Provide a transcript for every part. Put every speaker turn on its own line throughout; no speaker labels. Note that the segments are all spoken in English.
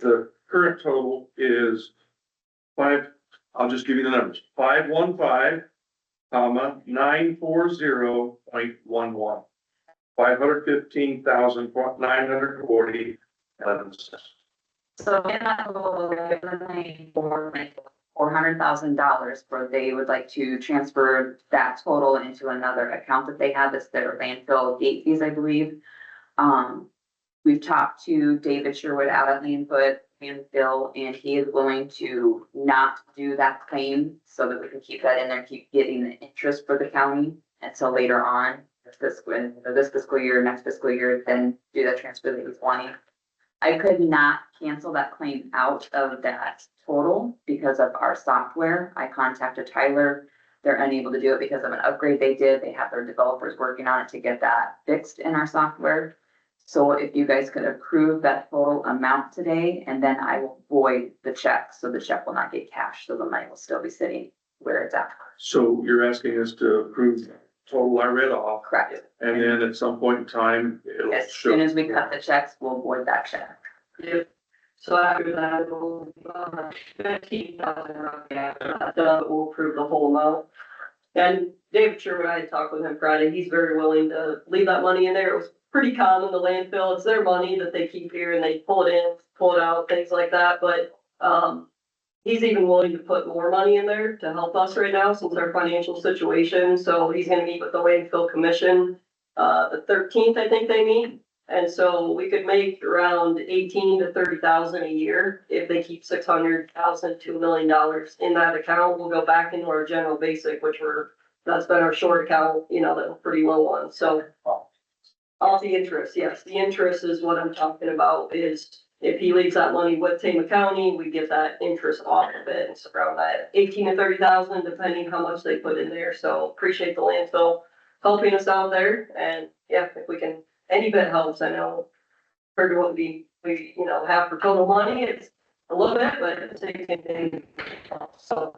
the current total is five, I'll just give you the numbers, five one five, comma, nine four zero point one one. Five hundred fifteen thousand, nine hundred forty, eleven cents.
So in that will eliminate for like four hundred thousand dollars where they would like to transfer that total into another account that they have, that's their landfill gate fees, I believe. Um, we've talked to David Sherwood out at Landfoot and Bill, and he is willing to not do that claim so that we can keep that in there, keep getting the interest for the county until later on, this fiscal, this fiscal year, next fiscal year, then do that transfer that he's wanting. I could not cancel that claim out of that total because of our software. I contacted Tyler. They're unable to do it because of an upgrade they did. They have their developers working on it to get that fixed in our software. So if you guys could approve that total amount today, and then I will void the check, so the check will not get cashed, so the money will still be sitting where it's at.
So you're asking us to approve the total I read off,
Correct.
and then at some point in time, it'll
As
show.
soon as we cut the checks, we'll void that check.
Yep. So after that, we'll, uh, fifteen thousand, yeah, that will approve the whole amount. And Dave Sherwood, I talked with him Friday, he's very willing to leave that money in there, it was pretty common, the landfill, it's their money that they keep here and they pull it in, pull it out, things like that, but, um, he's even willing to put more money in there to help us right now, since our financial situation, so he's gonna meet with the landfill commission, uh, the thirteenth, I think they meet, and so we could make around eighteen to thirty thousand a year if they keep six hundred thousand, two million dollars in that account. We'll go back into our general basic, which we're, that's been our short account, you know, the pretty low one, so. All the interest, yes, the interest is what I'm talking about is if he leaves that money with Tama County, we get that interest off of it. It's around that eighteen to thirty thousand, depending how much they put in there, so appreciate the landfill helping us out there, and yeah, if we can any bit helps, I know. For what we, we, you know, have for total money, it's a little bit, but it's a good thing. So,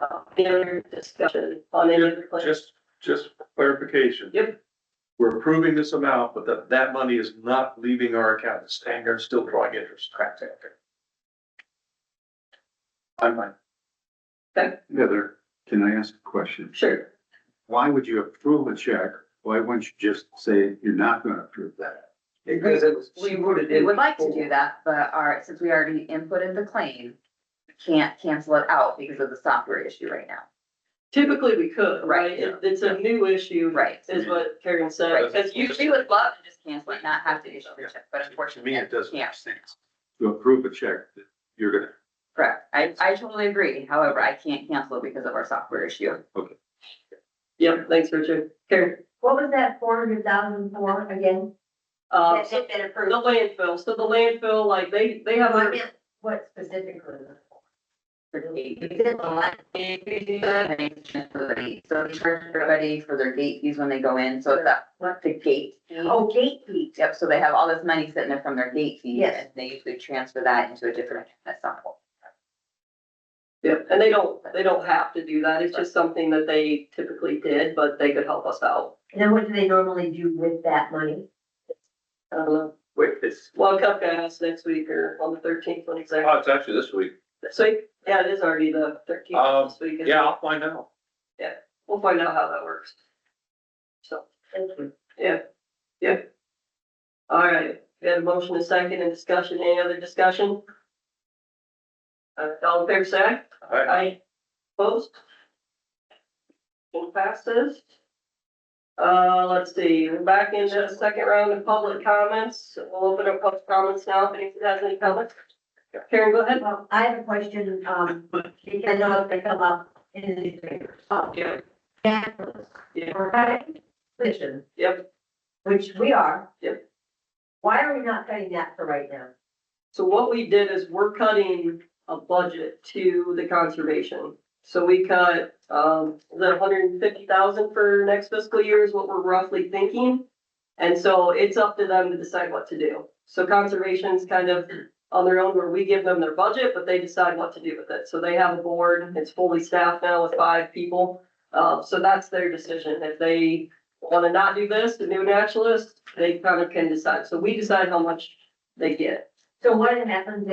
uh, the other discussion on any other plan.
Just, just clarification.
Yep.
We're approving this amount, but that, that money is not leaving our account, it's staying there, still drawing interest. Correct. I'm fine.
Heather, can I ask a question?
Sure,
Why would you approve a check? Why wouldn't you just say you're not gonna approve that?
Because it was, she voted
We
in.
would like to do that, but our, since we already inputted the claim, we can't cancel it out because of the software issue right now.
typically we could,
Right,
right? It- It's a new issue,
Right.
is what Karen
Right,
said.
because usually would love to just cancel it, not have to issue the check, but unfortunately. yeah,
sense. To approve a check that you're gonna,
Correct. I, I totally agree. However, I can't cancel it because of our software issue.
Yep, thanks, Richard. Karen,
What was that four hundred thousand for again?
uh,
That
so
had been
the
approved.
landfill, so the landfill, like, they, they have.
What
their-
it- What specifically?
for gate fees. It's a lot of gate fees, and it's just for the gate. So we charge everybody for their gate fees when they go in, so it's that, what the gate. fee.
Oh, gate fee.
Yep, so they have all this money sitting there from their gate fees,
Yes.
and they usually transfer that into a different, account at some point.
Yep, and they don't, they don't have to do that, it's just something that they typically did, but they could help us out.
And then what do they normally do with that money?
I don't know,
Wait, it's,
well, Cupcake asked next week or on the thirteenth, when exactly,
oh, it's actually this week.
so, yeah, it is already the thirteenth
Um,
this week.
Yeah, I'll find out.
We'll find out how that works. So, yeah, yeah. All right, we had a motion, a second, and discussion, any other discussion? Uh, all in favor, say aye.
Aye.
Opposed? Motion passes. Uh, let's see, we're back into the second round of public comments. We'll open up public comments now, if anyone has any comments. Karen, go ahead.
Well, Um, I have a question, um, because I know if they come up in the newspaper. Oh,
Yeah.
yeah.
Yeah.
Or right, position,
Yep,
which we are.
Yep.
Why are we not cutting that for right now?
so what we did is we're cutting a budget to the conservation. So we cut, um, the hundred and fifty thousand for next fiscal year is what we're roughly thinking. And so it's up to them to decide what to do. So conservation's kind of on their own where we give them their budget, but they decide what to do with it. So they have a board, it's fully staffed now with five people. Uh, so that's their decision. If they wanna not do this, the new naturalist, they kind of can decide. So we decide how much they get.
So what happens